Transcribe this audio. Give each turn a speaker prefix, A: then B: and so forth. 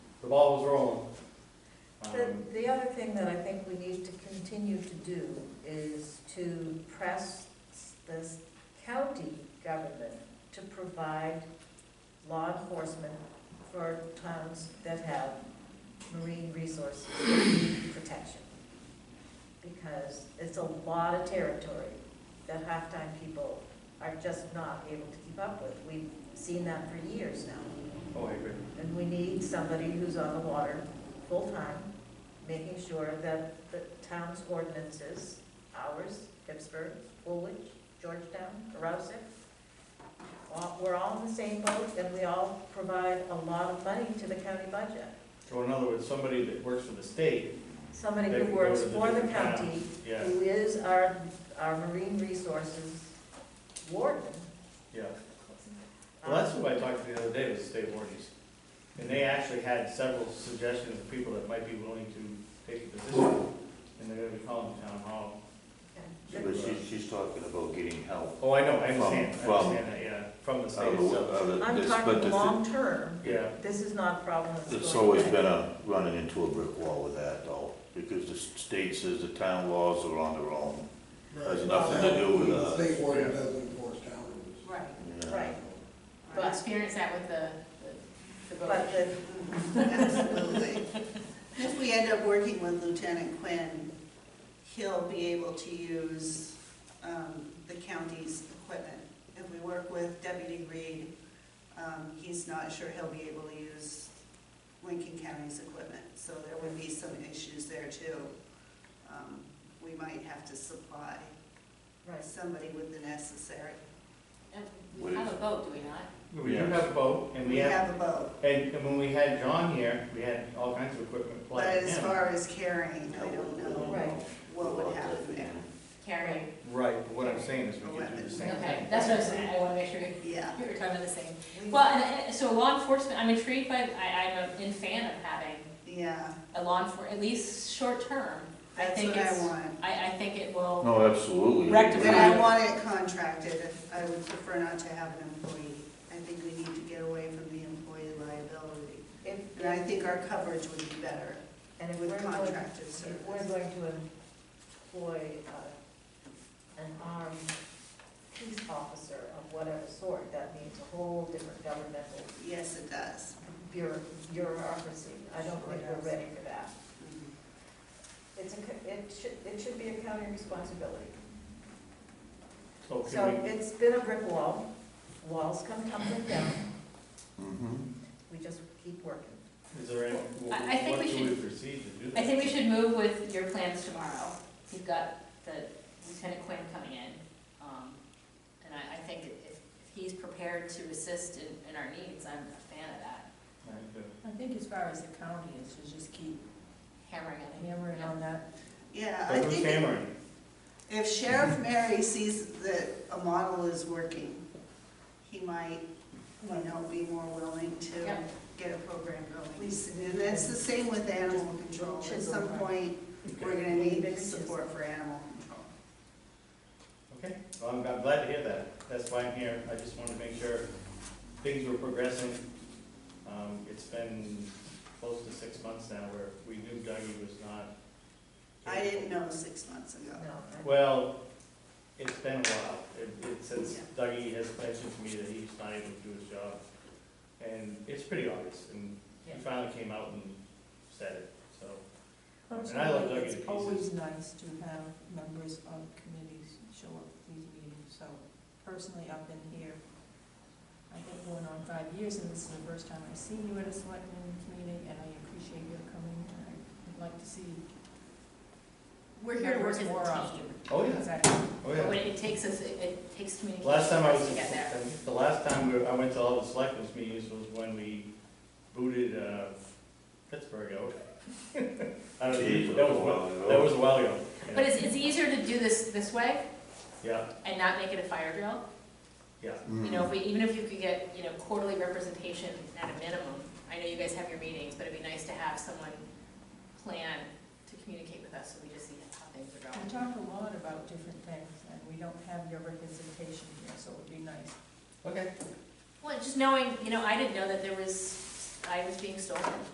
A: ball was rolling.
B: The,
C: Um,
B: the other thing that I think we need to continue to do is to press this county government to provide law enforcement for towns that have marine resource protection. Because it's a lot of territory that halftime people are just not able to keep up with. We've seen that for years now.
A: Oh, I agree.
B: And we need somebody who's on the water full-time, making sure that the town's ordinances, ours, Pittsburgh, Woolwich, Georgetown, Rouseck, all- we're all in the same boat, and we all provide a lot of money to the county budget.
A: So in other words, somebody that works for the state,
B: Somebody
A: They
B: who
A: can go
B: works
A: to the
B: for the
A: different
B: county,
A: towns. yeah,
B: who is our, our marine resources warden.
A: yeah. Well, that's who I talked to the other day, was the state warranties. And they actually had several suggestions of people that might be willing to take the position. And they're gonna be calling the town hall.
B: Okay.
D: But she's, she's talking about getting help.
A: Oh, I know, I understand, I
D: From- from-
A: understand that, yeah, from the
D: out
A: state
D: of the-
A: itself.
D: out of
B: Um, I'm
D: this, but the
B: talking
D: thi-
B: long-term,
A: Yeah,
B: this is not a problem that's going
D: It's
B: away.
D: always been a, running into a brick wall with that though, because the state says the town laws are on their own. Has nothing to do with us.
E: The state order doesn't enforce town rules.
F: Right,
D: you know.
B: Right,
F: I
B: But-
F: experienced that with the, the the boat.
B: but the,
G: Absolutely. If we end up working with Lieutenant Quinn, he'll be able to use um, the county's equipment. If we work with Deputy Reed, um, he's not sure he'll be able to use Lincoln County's equipment. So there would be some issues there too. Um, We might have to supply
B: right,
G: somebody with the necessary.
F: And We have a boat, do we not?
A: we do have a boat, and we have,
G: a boat,
A: and and when we had John here, we had all kinds of equipment
G: but
A: plugged in.
G: as far as carrying, I don't know
B: Right.
G: what would happen there.
F: Carrying.
A: Right, but what I'm saying is we could do the same thing.
F: Okay, that's what I'm saying, I wanna make sure
G: Yeah.
F: you're talking about the same.
B: We-
F: Well, and, and, so law enforcement, I'm intrigued by, I, I'm a in fan of having
G: Yeah,
F: a law enfor, at least short term. I
G: that's
F: think
G: what I
F: it's-
G: want.
F: I, I think it will,
D: No, absolutely.
F: Rectify.
G: But I want it contracted, I would prefer not to have an employee. I think we need to get away from the employee liability.
B: if,
G: And I think our coverage would be better
B: and if we're
G: with
B: going,
G: contracted
B: if we're
G: service.
B: going to employ, uh, an armed peace officer of whatever sort, that means a whole different governmental
G: Yes, it does.
B: bureau- bureaucracy. I don't think we're ready for that.
F: Mm-hmm.
G: Mhm.
B: It's a, co- it should, it should be a county responsibility.
A: So
B: So
A: can we,
B: it's been a brick wall, walls come tumbling down,
D: Mhm.
B: we just keep working.
A: is there any,
F: I- I think
A: what
F: we
A: do we proceed to do that?
F: I think we should move with your plans tomorrow. You've got the Lieutenant Quinn coming in. um, And I, I think if, if he's prepared to assist in, in our needs, I'm a fan of that,
A: I think
H: I think as far as the county is, to just keep
F: hammering on it.
H: hammering on that.
G: Yeah, I
A: But who's
G: think
A: hammering?
G: if Sheriff Mary sees that a model is working, he might, you know, be more willing to
F: Yep.
G: get a program going. And that's the same with animal control. At some point, we're gonna need support for animal control.
A: Okay, well, I'm, I'm glad to hear that. That's why I'm here. I just wanted to make sure things were progressing. Um, it's been close to six months now where we knew Dougie was not.
G: I didn't know six months ago.
B: No, I-
A: Well, it's been a while. It, it, since Dougie has mentioned to me that he's not able to do his job. And it's pretty obvious, and he
B: Yeah.
A: finally came out and said it, so. And I love Dougie to
H: It's
A: pieces.
H: always nice to have members of committees show up to these meetings, so personally, I've been here, I think going on five years, and this is the first time I've seen you at a selectmen meeting, and I appreciate your coming, and I'd like to see.
F: We're here to work as a
H: members more often.
F: team.
A: Oh, yeah,
H: Exactly.
A: oh, yeah.
F: But when it takes us, it- it takes communication
A: Last time
F: for
A: I
F: us
A: was,
F: to get there.
A: the last time we were- I went to all the selectmen's meetings was when we booted uh, Pittsburgh out. I don't know,
D: Jeez,
A: that was, a while- that was a while ago. yeah.
F: But it's, it's easier to do this, this way
A: Yeah,
F: and not make it a fire drill.
A: yeah,
D: Mhm.
F: You know, if we, even if you could get, you know, quarterly representation at a minimum. I know you guys have your meetings, but it'd be nice to have someone plan to communicate with us so we just see how things are
H: We
F: going.
H: talk a lot about different things, and we don't have your representation here, so it would be nice.
A: okay.
F: Well, just knowing, you know, I didn't know that there was, I was being stolen.